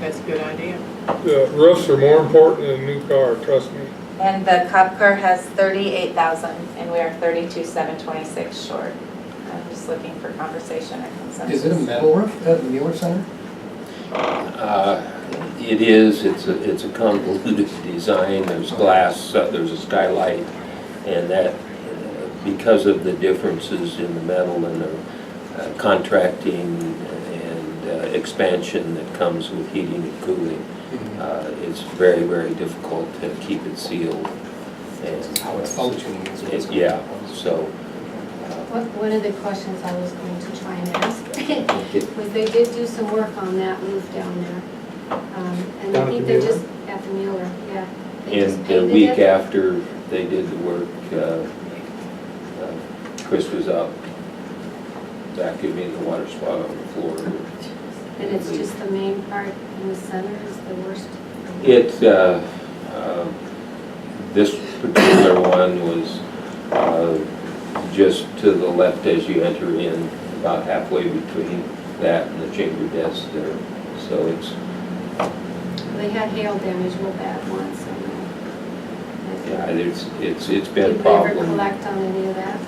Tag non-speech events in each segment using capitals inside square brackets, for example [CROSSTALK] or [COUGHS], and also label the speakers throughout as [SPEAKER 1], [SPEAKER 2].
[SPEAKER 1] That's a good idea.
[SPEAKER 2] The roofs are more important than a new car, trust me.
[SPEAKER 3] And the cop car has thirty-eight thousand, and we are thirty-two, seven twenty-six short. I'm just looking for conversation or consensus.
[SPEAKER 4] Is it a metal roof at the Mueller Center?
[SPEAKER 5] Uh, It is, it's a, it's a convoluted [LAUGHS] design, there's glass, uh, there's a skylight, and that, uh, because of the differences in the metal and the uh, contracting and uh, expansion that comes with heating and cooling, uh, it's very, very difficult to keep it sealed. and- uh,
[SPEAKER 4] How it's functioning is what's
[SPEAKER 5] It-
[SPEAKER 4] going
[SPEAKER 5] Yeah,
[SPEAKER 4] on.
[SPEAKER 5] so,
[SPEAKER 6] What, one of the questions I was going to try and ask [LAUGHS]
[SPEAKER 5] uh, it-
[SPEAKER 6] was they did do some work on that roof down there. Um, And
[SPEAKER 2] Down
[SPEAKER 6] I
[SPEAKER 2] at the
[SPEAKER 6] think they
[SPEAKER 2] Mueller?
[SPEAKER 6] just, at the Mueller, yeah. They just
[SPEAKER 5] And the
[SPEAKER 6] painted
[SPEAKER 5] week
[SPEAKER 6] it.
[SPEAKER 5] after they did the work, uh, uh, Chris was out vacuuming the water spot on the floor.
[SPEAKER 6] And it's just the main part in the center is the worst.
[SPEAKER 5] It, uh, um, this particular one was uh, just to the left as you enter in, about halfway between that and the chamber desk there. So it's,
[SPEAKER 6] They had hail damage real bad once and. uh,
[SPEAKER 5] yeah, it's, it's it's been a
[SPEAKER 6] Did we ever
[SPEAKER 5] problem.
[SPEAKER 6] collect on any of that?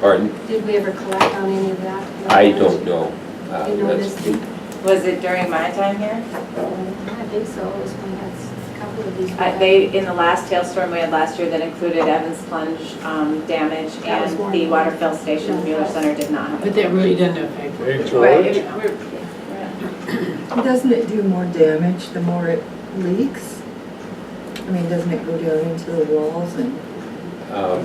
[SPEAKER 5] Pardon?
[SPEAKER 6] Did we ever collect on any of that?
[SPEAKER 5] I don't know. Uh,
[SPEAKER 6] You know,
[SPEAKER 5] that's-
[SPEAKER 6] this-
[SPEAKER 3] Was it during my time here?
[SPEAKER 6] I think so, it was when that's, a couple of these. were
[SPEAKER 3] I-
[SPEAKER 6] bad.
[SPEAKER 3] They, in the last hailstorm we had last year that included Evans plunge um, damage
[SPEAKER 6] That was
[SPEAKER 3] and
[SPEAKER 6] more
[SPEAKER 3] the
[SPEAKER 6] than-
[SPEAKER 3] water fill station, Mueller Center did not have.
[SPEAKER 1] But that really doesn't affect.
[SPEAKER 2] Hey,
[SPEAKER 3] Right,
[SPEAKER 2] George,
[SPEAKER 3] it- we're- yeah.
[SPEAKER 7] Doesn't it do more damage the more it leaks? I mean, doesn't it go down into the walls and?
[SPEAKER 5] Um,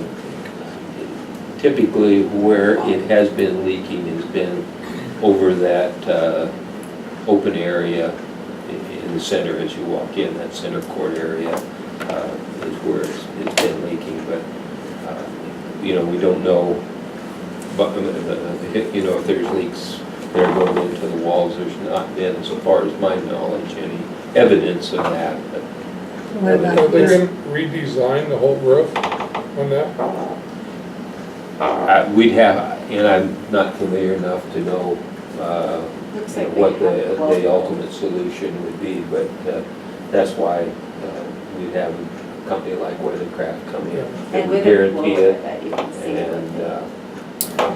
[SPEAKER 5] Typically, where it has been leaking has been over that uh, open area i- in the center as you walk in, that center court area uh, is where it's it's been leaking, but, uh, you know, we don't know, but, uh, uh, you know, if there's leaks that are going into the walls, there's not been, so far as my knowledge, any evidence of that, but
[SPEAKER 7] What about
[SPEAKER 2] are they
[SPEAKER 7] this?
[SPEAKER 2] gonna redesign the whole roof on that?
[SPEAKER 5] Uh, We'd have, and I'm not familiar enough to know uh,
[SPEAKER 3] Looks like
[SPEAKER 5] what uh,
[SPEAKER 3] they have
[SPEAKER 5] the,
[SPEAKER 3] both.
[SPEAKER 5] the ultimate solution would be, but uh, that's why uh, we'd have a company like Weathercraft come in.
[SPEAKER 3] And with a blower
[SPEAKER 5] Guarantee it,
[SPEAKER 3] that you can see.
[SPEAKER 5] and, uh,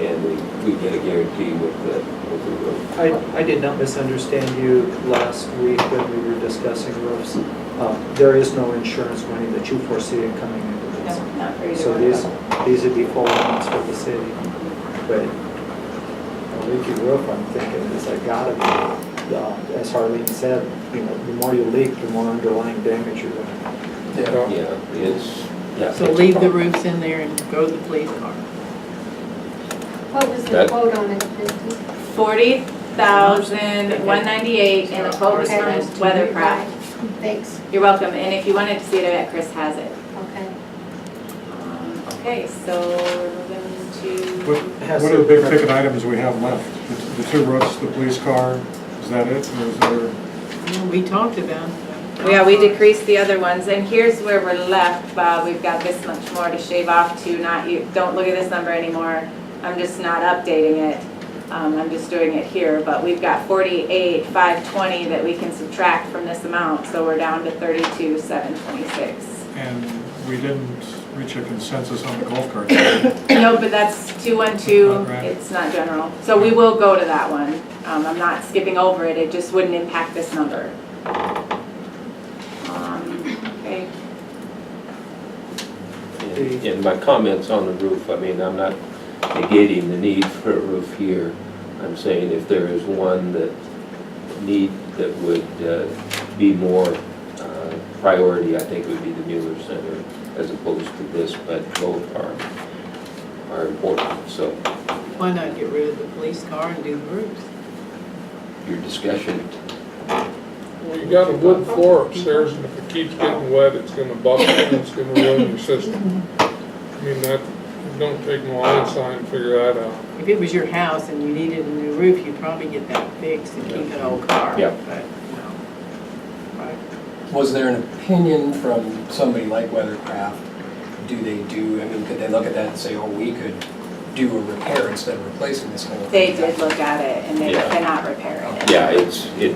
[SPEAKER 5] and we, we get a guarantee with the, with the roof.
[SPEAKER 8] I, I did not misunderstand you last week when we were discussing roofs. Um, There is no insurance money that you foresee it coming into
[SPEAKER 3] No,
[SPEAKER 8] this.
[SPEAKER 3] not for either
[SPEAKER 8] So
[SPEAKER 3] one of
[SPEAKER 8] these,
[SPEAKER 3] them.
[SPEAKER 8] these would be full amounts for the city. But a leaky roof, I'm thinking, is I gotta be, uh, as Harleen said, you know, the more you leak, the more underlying damage you're gonna.
[SPEAKER 4] Yeah.
[SPEAKER 5] Yeah, it's, yeah.
[SPEAKER 1] So
[SPEAKER 5] it's
[SPEAKER 1] leave the
[SPEAKER 5] prob-
[SPEAKER 1] roofs in there and go to the police car.
[SPEAKER 6] What was the
[SPEAKER 5] That-
[SPEAKER 6] quote on it, fifty?
[SPEAKER 3] Forty thousand, one ninety-eight, and the quote was from
[SPEAKER 6] Okay.
[SPEAKER 3] Weathercraft.
[SPEAKER 6] Thanks,
[SPEAKER 3] You're welcome, and if you wanted to see it, I bet Chris has it.
[SPEAKER 6] okay.
[SPEAKER 3] Um, Okay, so we're
[SPEAKER 9] What
[SPEAKER 3] moving to,
[SPEAKER 9] what are the big ticket items we have left? The- The two roofs, the police car, is that it? Or is there,
[SPEAKER 1] Well, We talked about.
[SPEAKER 3] yeah, we decreased the other ones, and here's where we're left, Bob, we've got this much more to shave off to not, you, don't look at this number anymore. I'm just not updating it, um, I'm just doing it here, but we've got forty-eight, five twenty that we can subtract from this amount, so we're down to thirty-two, seven twenty-six.
[SPEAKER 9] and we didn't reach a consensus on the golf cart. Well,
[SPEAKER 3] [COUGHS] No, but that's two-one-two,
[SPEAKER 9] Not right.
[SPEAKER 3] it's not general. So we will go to that one. Um, I'm not skipping over it, it just wouldn't impact this number. Um, Okay,
[SPEAKER 5] And and my comments on the roof, I mean, I'm not negating the need for a roof here. I'm saying if there is one that need, that would uh, be more uh, priority, I think it would be the Mueller Center as opposed to this, but both are, are important. So
[SPEAKER 1] Why not get rid of the police car and do the roofs?
[SPEAKER 5] your discussion,
[SPEAKER 2] Well, you got a wood floor upstairs, and if it keeps getting wet, it's gonna buckle and it's gonna ruin your system. I mean, that, it don't take an rocket science to figure that out.
[SPEAKER 1] If it was your house and you needed a new roof, you'd probably get that fixed and keep an old car.
[SPEAKER 5] Yeah.
[SPEAKER 1] But, no. Right.
[SPEAKER 4] Was there an opinion from somebody like Weathercraft? Do they do, I mean, could they look at that and say, oh, we could do a repair instead of replacing this whole thing?
[SPEAKER 3] they did look at it and they
[SPEAKER 5] Yeah.
[SPEAKER 3] cannot repair it.
[SPEAKER 5] yeah, it's, it